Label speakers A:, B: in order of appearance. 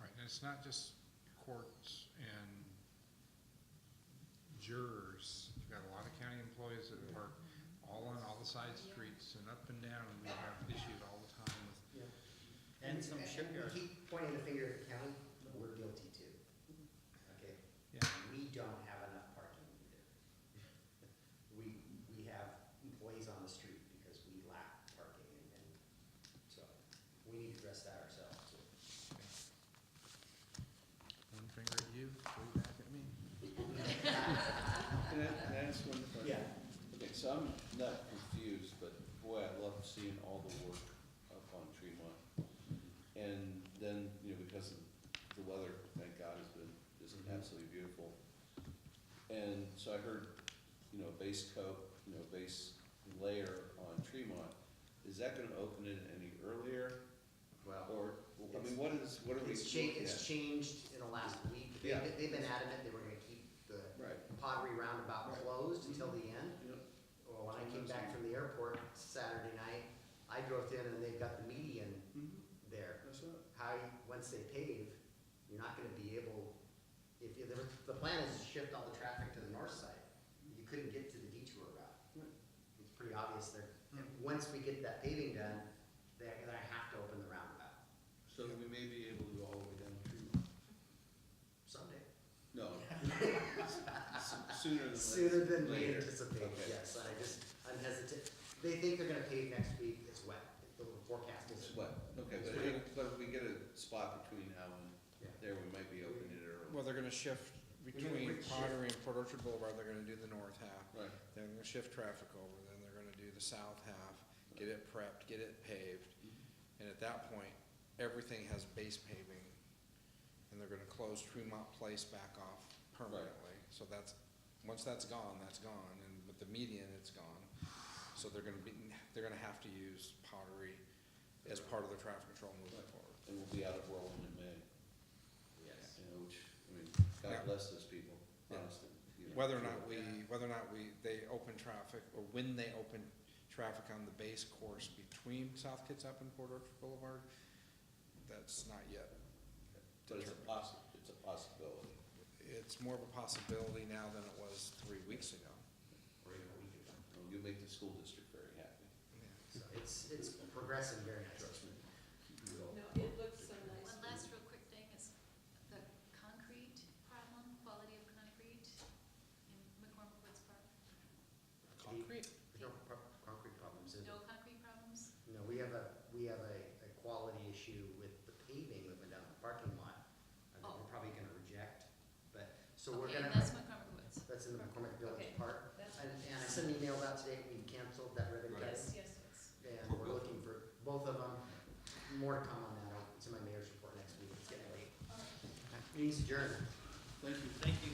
A: it's not just courts and jurors. You've got a lot of county employees that work all on all the side streets and up and down, and we have issues all the time with
B: Yeah.
C: And some shipyards.
B: We keep pointing the finger at the county, we're guilty too. Okay?
A: Yeah.
B: We don't have enough parking either. We, we have employees on the street because we lack parking and, and so we need to address that ourselves too.
A: one finger at you, three back at me.
D: Can I can I ask one question?
B: Yeah.
D: Okay, so I'm not confused, but boy, I love seeing all the work up on Tremont. And then, you know, because of the weather, thank God, has been just absolutely beautiful. And so I heard, you know, base coat, you know, base layer on Tremont. Is that gonna open it any earlier? Or, I mean, what is, what are we
B: It's changed,
D: looking
B: it's
D: at?
B: changed in the last week. They-
D: Yeah.
B: They've been adamant they were gonna keep the
D: Right.
B: pottery roundabout
D: Right.
B: closed until the end.
D: Yep.
B: Well, when I came back from the airport Saturday night, I drove in and they've got the
D: Mhm.
B: median there.
D: That's right.
B: How, you- once they pave, you're not gonna be able, if, if, the- the plan is to shift all the traffic to the north side. You couldn't get to the detour route.
D: Hmm.
B: It's pretty obvious there. And Once we get that paving done, they're gonna have to open the roundabout
D: So we may be able to go all the way down Tremont.
B: someday.
D: No. S- Sooner than later.
B: Sooner than we
D: Later.
B: anticipate,
D: Okay.
B: yes, I just, I'm hesitant. They think they're gonna pave next week, it's wet, the forecast is.
D: It's wet, okay,
B: It's
D: but
B: pretty-
D: if, but if we get a spot between now
B: Yeah.
D: and there, we might be opening it early.
E: Well, they're gonna shift between Pottery and Port Orchard Boulevard, they're gonna do the north half.
D: Right.
E: Then they're gonna shift traffic over, then they're gonna do the south half, get it prepped, get it paved. And at that point, everything has base paving, and they're gonna close Tremont Place back off permanently. So that's, once that's gone, that's gone, and with the median, it's gone. So they're gonna be, they're gonna have to use Pottery as part of their traffic control moving
D: Right.
E: forward.
D: And we'll be out of Orland in May,
B: Yes.
D: you know, which, I mean,
E: Yeah.
D: God bless those people, honestly. you know.
E: Whether or not we, whether or not we, they open traffic, or when they open traffic on the base course between South Kitsap and Port Orchard Boulevard, that's not yet.
D: But it's a
E: determined.
D: possi, it's a possibility.
E: It's more of a possibility now than it was three weeks ago.
B: Or even a week ago.
D: Well, You make the school district very happy.
B: So it's, it's progressing very nicely.
F: No, it looks so nice.
G: One last real quick thing is the concrete problem, quality of concrete in McCormick Woods Park.
E: Concrete?
B: There's no pro- concrete problems, is
G: No
B: there?
G: concrete problems?
B: No, we have a, we have a, a quality issue with the paving that went down the parking lot. I think
G: Oh.
B: we're probably gonna reject, but, so we're
G: Okay,
B: gonna.
G: that's McCormick Woods.
B: That's in the McCormick Village
G: Okay,
B: Park.
G: that's-
B: And, and I sent an email out today, we canceled that ribbon cutting.
G: Yes, yes, yes.
B: And we're looking for both of them. More to come on that. It's in my mayor's report next week. It's getting late.
G: All right.
B: Meeting's adjourned.
D: Thank you.
C: Thank you.